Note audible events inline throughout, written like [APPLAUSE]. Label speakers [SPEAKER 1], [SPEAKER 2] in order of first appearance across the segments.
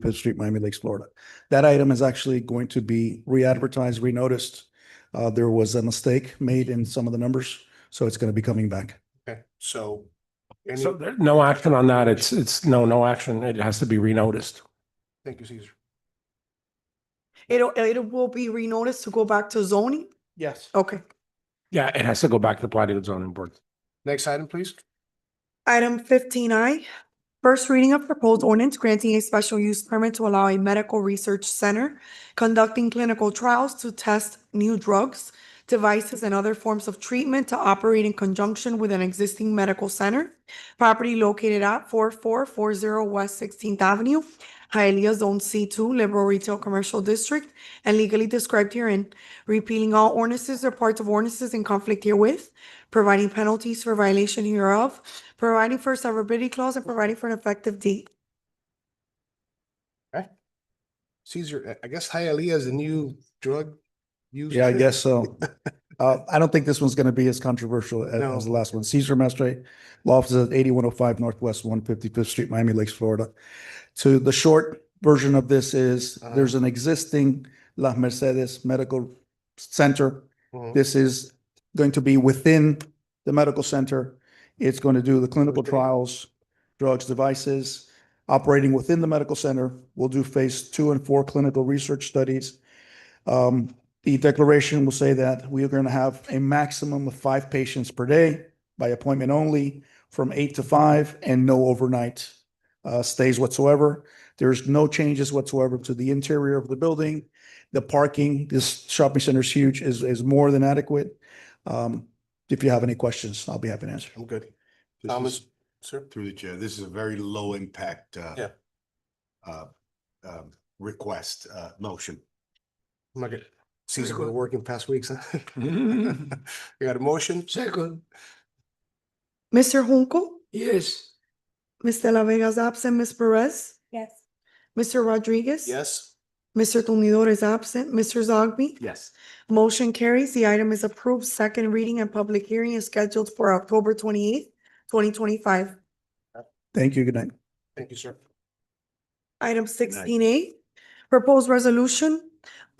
[SPEAKER 1] Fifth Street, Miami Lakes, Florida. That item is actually going to be re-advertised, renoticed. Uh, there was a mistake made in some of the numbers, so it's going to be coming back.
[SPEAKER 2] Okay, so. any-
[SPEAKER 3] So there, no action on that. It's, it's, no, no action. It has to be renoticed.
[SPEAKER 2] Thank you, Caesar.
[SPEAKER 4] It'll, it will be renoticed to go back to zoning?
[SPEAKER 2] Yes.
[SPEAKER 4] Okay.
[SPEAKER 3] Yeah, it has to go back to the planning and zoning board.
[SPEAKER 2] Next item, please.
[SPEAKER 4] Item fifteen I, first reading of proposed ordinance granting a special use permit to allow a medical research center conducting clinical trials to test new drugs, devices, and other forms of treatment to operate in conjunction with an existing medical center. Property located at four four four zero West Sixteenth Avenue, Hialeah Zone C two, Liberal Retail Commercial District, and legally described herein, repealing all ordinances or parts of ordinances in conflict herewith, providing penalties for violation hereof, providing for severability clause, and providing for an effective date.
[SPEAKER 2] Caesar, I I guess Hialeah is the new drug. use
[SPEAKER 1] Yeah, I
[SPEAKER 2] thing?
[SPEAKER 1] guess so. Uh, I don't think this one's going to be as controversial as,
[SPEAKER 2] No.
[SPEAKER 1] as the last one. Caesar Mastre, law office at eighty-one oh five Northwest one fifty-fifth Street, Miami Lakes, Florida. So the short version of this is
[SPEAKER 2] Uh-huh.
[SPEAKER 1] there's an existing Las Mercedes Medical Center
[SPEAKER 2] Mhm.
[SPEAKER 1] This is going to be within the medical center. It's going to do the clinical
[SPEAKER 2] Okay.
[SPEAKER 1] trials, drugs, devices, operating within the medical center. We'll do phase two and four clinical research studies. Um, the declaration will say that we are going to have a maximum of five patients per day by appointment only from eight to five and no overnight uh, stays whatsoever. There's no changes whatsoever to the interior of the building. The parking, this shopping center is huge, is, is more than adequate. Um, if you have any questions, I'll be happy to answer.
[SPEAKER 2] I'm good.
[SPEAKER 5] This
[SPEAKER 2] Thomas,
[SPEAKER 5] is-
[SPEAKER 2] sir?
[SPEAKER 5] Through the chair, this is a very low impact, uh.
[SPEAKER 2] Yeah.
[SPEAKER 5] Uh, um, request, uh, motion.
[SPEAKER 2] I'm not good. Caesar, been working past weeks, huh? You got a motion? Second.
[SPEAKER 4] Mr. Junco,
[SPEAKER 2] Yes.
[SPEAKER 4] Ms. De La Vega's absent, Ms. Perez,
[SPEAKER 6] Yes.
[SPEAKER 4] Mr. Rodriguez.
[SPEAKER 2] Yes.
[SPEAKER 4] Mr. Tumidor is absent, Mr. Zogby.
[SPEAKER 2] Yes.
[SPEAKER 4] Motion carries. The item is approved. Second reading and public hearing is scheduled for October twenty-eighth, twenty twenty-five.
[SPEAKER 1] Thank you. Good night.
[SPEAKER 2] Thank you, sir.
[SPEAKER 4] Item sixteen A, proposed resolution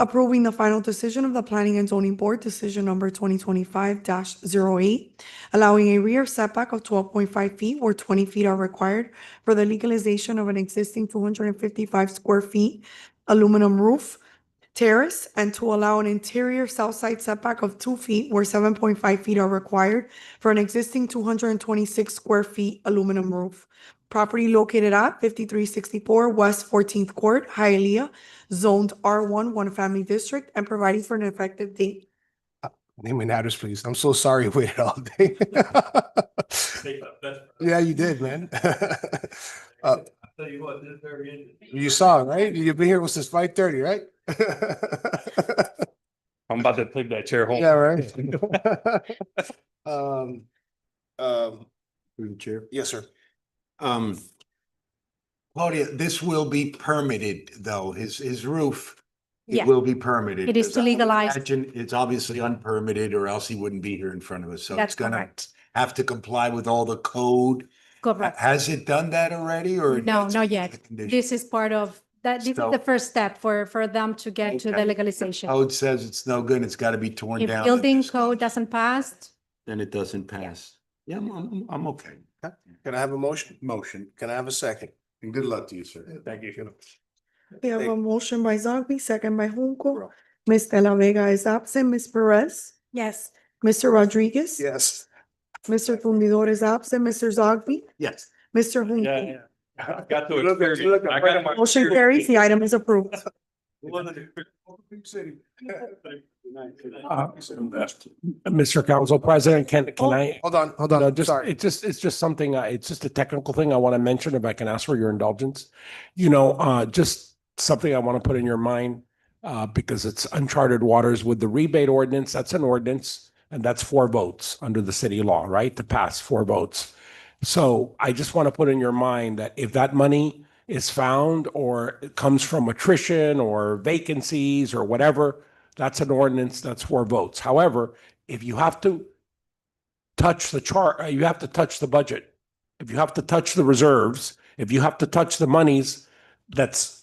[SPEAKER 4] approving the final decision of the Planning and Zoning Board, decision number twenty twenty-five 8 allowing a rear setback of twelve point five feet where twenty feet are required for the legalization of an existing two hundred and fifty-five square feet aluminum roof terrace and to allow an interior south side setback of two feet where seven point five feet are required for an existing two hundred and twenty-six square feet aluminum roof. Property located at fifty-three sixty-four West Fourteenth Court, Hialeah, zoned R one, one family district, and providing for an effective date.
[SPEAKER 2] Name and address, please. I'm so sorry [LAUGHS] you waited all day. Yeah, you did, man. [LAUGHS] Uh,
[SPEAKER 7] Tell you what, this very end.
[SPEAKER 2] You saw, right? You've been here since five thirty, right? [LAUGHS]
[SPEAKER 7] I'm about to take that chair home.
[SPEAKER 2] Yeah, right. [LAUGHS] Um, um,
[SPEAKER 5] Through the chair.
[SPEAKER 2] yes, sir.
[SPEAKER 5] Um. Claudia, this will be permitted though, his, his roof.
[SPEAKER 6] Yeah.
[SPEAKER 5] It will be permitted.
[SPEAKER 6] It is
[SPEAKER 5] 'cause I would
[SPEAKER 6] legalized.
[SPEAKER 5] Imagine it's obviously unpermitted or else he wouldn't be here in front of us. So it's
[SPEAKER 6] That's
[SPEAKER 5] gonna
[SPEAKER 6] correct.
[SPEAKER 5] have to comply with all the code. Ha-
[SPEAKER 6] Correct.
[SPEAKER 5] Has it done that already or?
[SPEAKER 6] No,
[SPEAKER 5] it's
[SPEAKER 6] not
[SPEAKER 5] just
[SPEAKER 6] yet.
[SPEAKER 5] a condition?
[SPEAKER 6] This is part of, that, this is
[SPEAKER 5] So-
[SPEAKER 6] the first step for, for them to get to
[SPEAKER 5] Okay.
[SPEAKER 6] the legalization.
[SPEAKER 5] Code says it's no good. It's got to be torn
[SPEAKER 6] If
[SPEAKER 5] down.
[SPEAKER 6] building code doesn't pass,
[SPEAKER 5] Then it doesn't pass. Yeah, I'm, I'm, I'm okay.
[SPEAKER 2] Can I have a motion?
[SPEAKER 5] Motion.
[SPEAKER 2] Can I have a second?
[SPEAKER 5] And good luck to you, sir.
[SPEAKER 2] Thank you.
[SPEAKER 4] We have a
[SPEAKER 2] Thank-
[SPEAKER 4] motion by Zogby, second by Junco. Ms. De La Vega is absent, Ms. Perez,
[SPEAKER 6] yes,
[SPEAKER 4] Mr. Rodriguez.
[SPEAKER 2] Yes.
[SPEAKER 4] Mr. Tumidor is absent, Mr. Zogby,
[SPEAKER 5] Yes.
[SPEAKER 4] Mr.
[SPEAKER 7] Yeah,
[SPEAKER 4] Junco.
[SPEAKER 7] yeah. I got to
[SPEAKER 2] You look- you
[SPEAKER 7] experience.
[SPEAKER 2] look
[SPEAKER 7] it. I
[SPEAKER 2] right
[SPEAKER 7] got
[SPEAKER 2] at my-
[SPEAKER 7] to
[SPEAKER 4] Motion carries. The item is approved.
[SPEAKER 3] Uh, Mr. Council President, can,
[SPEAKER 2] Oh,
[SPEAKER 3] can I?
[SPEAKER 2] Hold on, hold
[SPEAKER 3] No,
[SPEAKER 2] on,
[SPEAKER 3] just,
[SPEAKER 2] sorry.
[SPEAKER 3] it's just, it's just something, uh, it's just a technical thing I want to mention, if I can ask for your indulgence. You know, uh, just something I want to put in your mind, uh, because it's uncharted waters with the rebate ordinance, that's an ordinance, and that's four votes under the city law, right, to pass four votes. So I just want to put in your mind that if that money is found or it comes from attrition or vacancies or whatever, that's an ordinance, that's four votes. However, if you have to touch the chart, you have to touch the budget. If you have to touch the reserves, if you have to touch the monies that's